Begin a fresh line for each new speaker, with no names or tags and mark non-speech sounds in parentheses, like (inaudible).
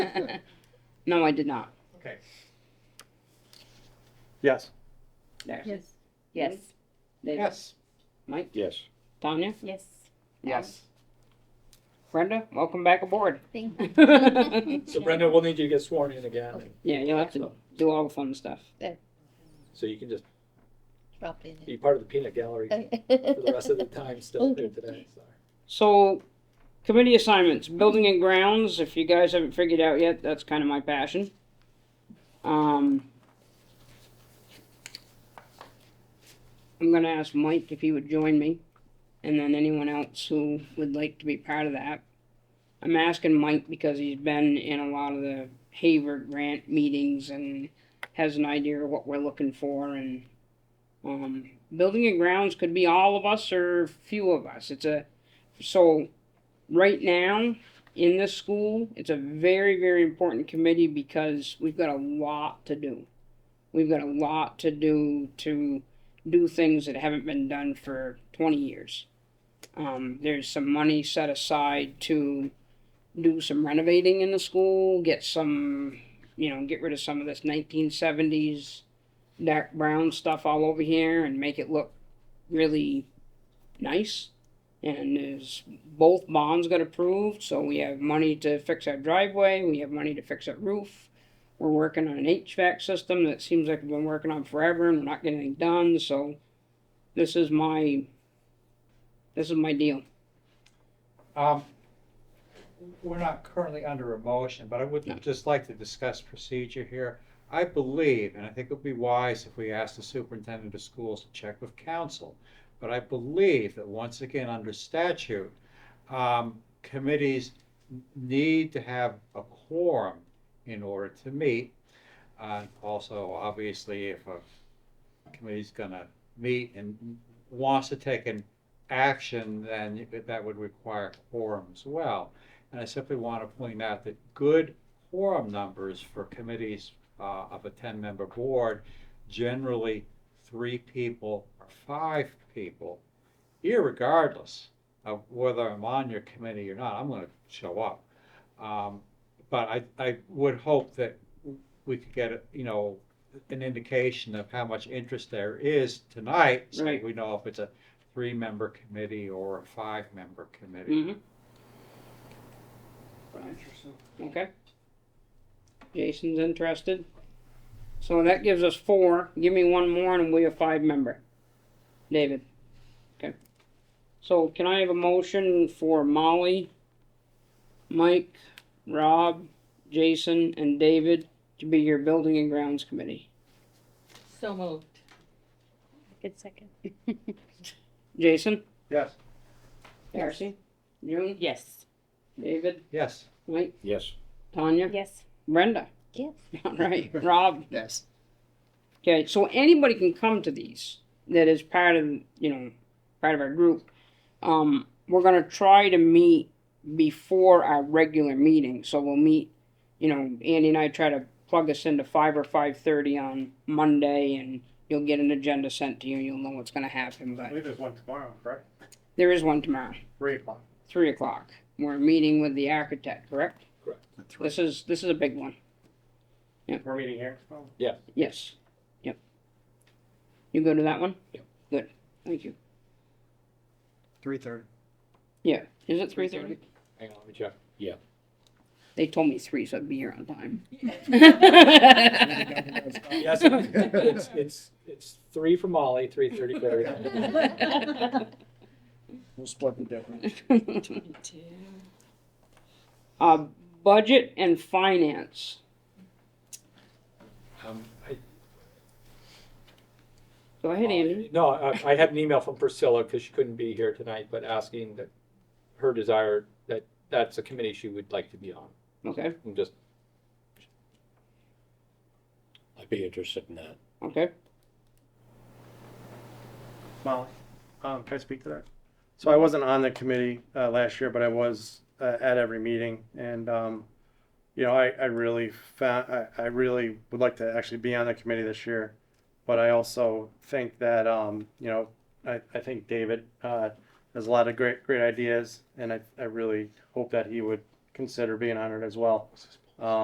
good.
(laughs) No, I did not.
Okay.
Yes.
There.
Yes.
Yes. David.
Yes.
Mike.
Yes.
Tanya.
Yes.
Yes.
Brenda. Welcome back aboard. (laughs)
Thank
yeah,
So Brenda, we'll need you to get sworn in again, and-
you'll have to do all the fun stuff.
so you can just
Drop in.
be part of the peanut gallery for the rest of the time
Oh.
still here today, so.
So, committee assignments, building and grounds. If you guys haven't figured out yet, that's kind of my passion. Um, I'm gonna ask Mike if he would join me, and then anyone else who would like to be part of that. I'm asking Mike because he's been in a lot of the Haver grant meetings and has an idea of what we're looking for and um, building and grounds could be all of us or few of us. It's a so right now in this school it's a very very important committee because we've got a lot to do we've got a lot to do to do things that haven't been done for 20 years um, there's some money set aside to do some renovating in the school get some you know get rid of some of this 1970s dark brown stuff all over here and make it look really nice and is both bonds got approved, so we have money to fix our driveway, we have money to fix our roof. We're working on an HVAC system that seems like we've been working on forever and we're not getting anything done, so this is my, this is my deal.
Um, we're not currently under a motion, but I
No.
would just like to discuss procedure here. I believe, and I think it would be wise if we asked the superintendent of schools to check with council, but I believe that once again, under statute, um, committees n- need to have a quorum in order to meet. Uh, also, obviously, if a committee's gonna meet and wants to take an action, then that would require quorum as well. And I simply want to point out that good quorum numbers for committees uh, of a ten-member board, generally three people or five people, irregardless of whether I'm on your committee or not, I'm going to show up. Um, But I, I would hope that we could get, you know, an indication of how much interest there is tonight. So
Right.
we know if it's a three-member committee or a five-member committee.
Mm-hmm. Okay. Jason's interested. So that gives us four. Give me one more and we'll be a five member. David. Okay. So can I have a motion for Molly, Mike, Rob, Jason, and David to be your building and grounds committee?
(laughs) So moved. Good second.
Jason?
Yes.
Darcy? June?
Yes.
David?
Yes.
Mike?
Yes.
Tanya?
Yes.
Brenda?
Yes.
(laughs) All right. Rob?
Yes.
Okay, so anybody can come to these that is part of you know part of our group. Um, we're gonna try to meet before our regular meeting, so we'll meet. You know, Andy and I try to plug us into five or five thirty on Monday, and you'll get an agenda sent to you. You'll know what's gonna happen,
I
but
believe there's one tomorrow, right?
there is one tomorrow,
Three o'clock.
three o'clock. We're meeting with the architect, correct? This is this is a big one.
We're meeting here.
Yes. Yep. You go to that one.
Yep.
Good. Thank you.
Three thirty.
Yeah, is it three thirty?
Hang on, let me check.
They told me three, so I'd be here on time. (laughs)
Yes, (laughs) it's, it's, it's three for Molly, three thirty
(laughs)
for Barry.
(laughs)
We'll split the difference.
Uh, budget and finance,
Um, I-
go ahead, Andy.
No, I, I had an email from Priscilla, because she couldn't be here tonight, but asking that her desire, that that's a committee she would like to be on.
Okay,
I'm just,
I'd be interested in that.
okay,
Molly, um, can I speak to that? So I wasn't on the committee, uh, last year, but I was, uh, at every meeting and, um, you know, I, I really found, I, I really would like to actually be on the committee this year. But I also think that, um, you know, I, I think David, uh, has a lot of great, great ideas and I, I really hope that he would consider being on it as well. Um,